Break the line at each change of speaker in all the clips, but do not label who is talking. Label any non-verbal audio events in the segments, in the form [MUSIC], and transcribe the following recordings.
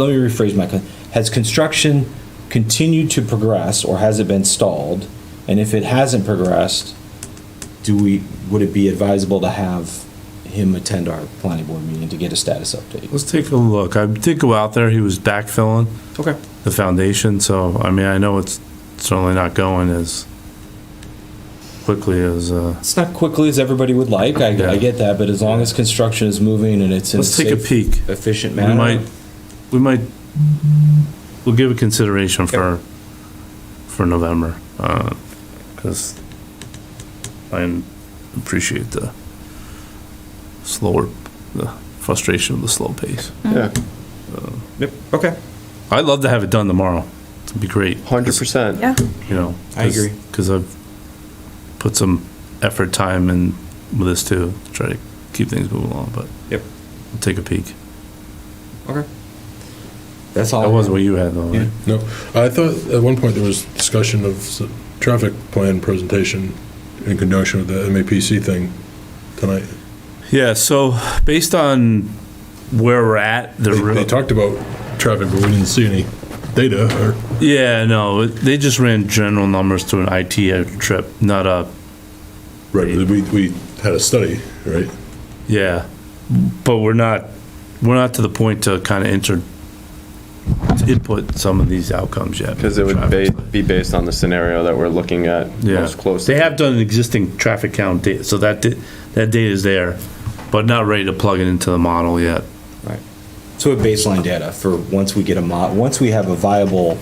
let me rephrase my, con- has construction continued to progress or has it been stalled? And if it hasn't progressed, do we, would it be advisable to have him attend our planning board meeting to get a status update?
Let's take a look. I did go out there. He was backfilling
Okay.
the foundation, so, I mean, I know it's certainly not going as quickly as, uh,
It's not quickly as everybody would like, I, I
Yeah.
get that, but as long as construction is moving and it's in a
let's take a
safe,
peek.
efficient
We might,
manner.
we might, we'll give a consideration for, for November, uh, because I appreciate the slower, the frustration of the slow pace.
Yeah,
Yep, okay.
I'd love to have it done tomorrow. It'd be great.
hundred percent.
[LAUGHS]
Yeah,
You know.
I agree.
Because I've put some effort, time in with this too, to try to keep things moving along, but
Yep,
we'll take a peek.
okay. That's all.
That was what you had though, right?
No, I thought at one point there was discussion of s- traffic plan presentation in conjunction with the MAPC thing tonight.
Yeah, so based on where we're at, the.
They- They talked about traffic, but we didn't see any data or,
Yeah, no, they just ran general numbers through an IT trip, not a,
right, but we, we had a study, right?
yeah. But we're not, we're not to the point to kind of enter, to input some of these outcomes yet.
Because it would ba- be based on the scenario that we're looking at
Yeah.
most closely.
They have done an existing traffic count data, so that, di- that data is there, but not ready to plug it into the model yet.
So a baseline data for once we get a mod, once we have a viable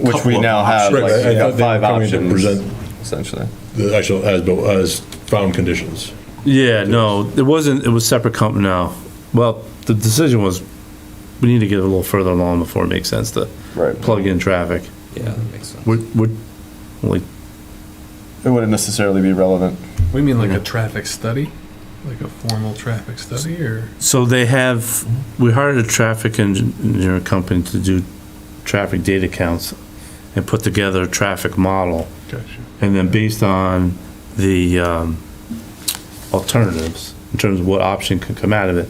Which we now have,
Right,
like,
I- I
we have
thought they were
five
coming to
options,
present-
essentially.
The actual as-built, as-found conditions.
Yeah, no, it wasn't, it was separate company, no. Well, the decision was, we need to get a little further along before it makes sense to
Right.
plug in traffic.
Yeah, that makes sense.
We're, we're, like,
It wouldn't necessarily be relevant.
We mean like a traffic study? Like a formal traffic study or?
so they have, we hired a traffic engin- engineer company to do traffic data counts and put together a traffic model. And then based on the um, alternatives, in terms of what option could come out of it,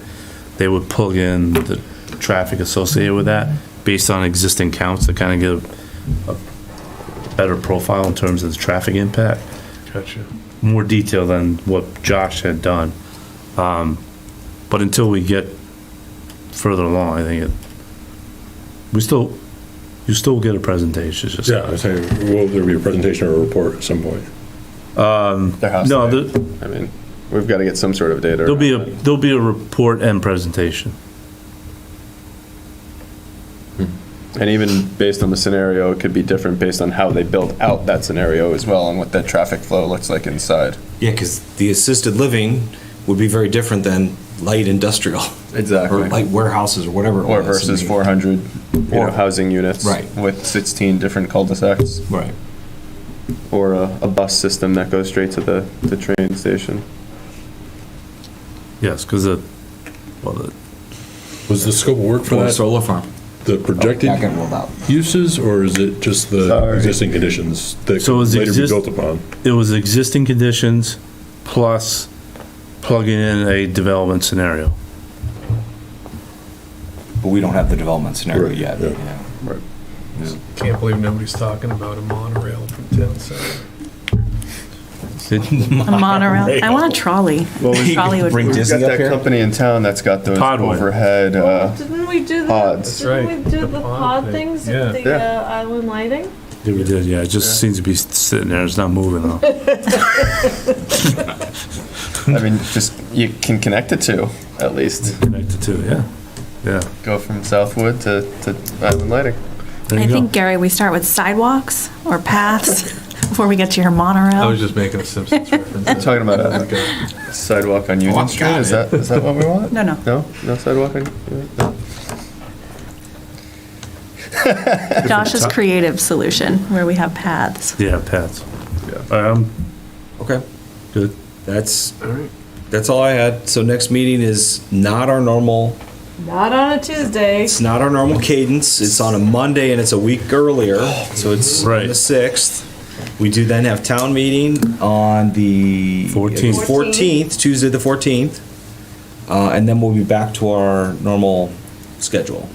they would plug in the traffic associated with that based on existing counts to kind of give a better profile in terms of the traffic impact,
Gotcha.
more detail than what Josh had done. Um, But until we get further along, I think it, we still, you still get a presentation, it's just.
Yeah, I'm saying, will there be a presentation or a report at some point?
There has
No,
to
the,
be. I mean, we've got to get some sort of data.
There'll be a,
around it.
there'll be a report and presentation.
And even based on the scenario, it could be different based on how they built out that scenario as well and what that traffic flow looks like inside.
Yeah, because the assisted living would be very different than light industrial [LAUGHS] or
Exactly.
light warehouses or whatever. it
Or
was.
versus
I mean,
400, you know,
Or-
housing units.
Right.
With 16 different cul-de-sacs.
Right.
Or a, a bus system that goes straight to the, the train station.
Yes, because the, well, the-
Was the scope of work for
Or a
that,
solar farm.
the projected
Not getting rolled out.
uses, or is it just the
Sorry.
existing conditions that
So
could
is
later be
exist-
built upon?
it was existing conditions plus plugging in a development scenario.
But we don't have the development scenario
Right,
yet.
yeah.
yeah.
Right.
Can't believe nobody's talking about a monorail from town center.
a monorail. I want a trolley. Trolley would
Bring
be-
We've
Disney
got
up
that
here.
company in town that's got those
Podway.
overhead,
[LAUGHS]
uh,
Didn't we do the?
Pods.
That's
Didn't
right,
we do
the
the
pod
pod
thing.
things
Yeah.
at the
Yeah.
uh, island lighting?
Yeah, we did, yeah, it just seems to be sitting there, it's not moving [LAUGHS] though.
I mean, just, you can connect it to, at least.
Connected to, yeah, yeah.
Go from Southwood to, to Island Lighting.
There
I
you go.
think, Gary, we start with sidewalks or paths [LAUGHS] before we get to your
I was
monorail.
just making a Simpsons reference.
Talking about a sidewalk on Union Street, is that, is that what we
[LAUGHS]
want?
No,
[LAUGHS]
no.
No? No sidewalk on? no?
Josh's creative solution where we have paths.
Yeah, Pat's. Um,
Okay.
good,
That's,
right.
that's all I had. So next meeting is not our normal,
Not on a Tuesday.
it's not our normal cadence. It's on a Monday and it's a week earlier, so it's on
Right.
the 6th. We do then have town meeting on the
14th.
14th, Tuesday the 14th. Uh, And then we'll be back to our normal schedule.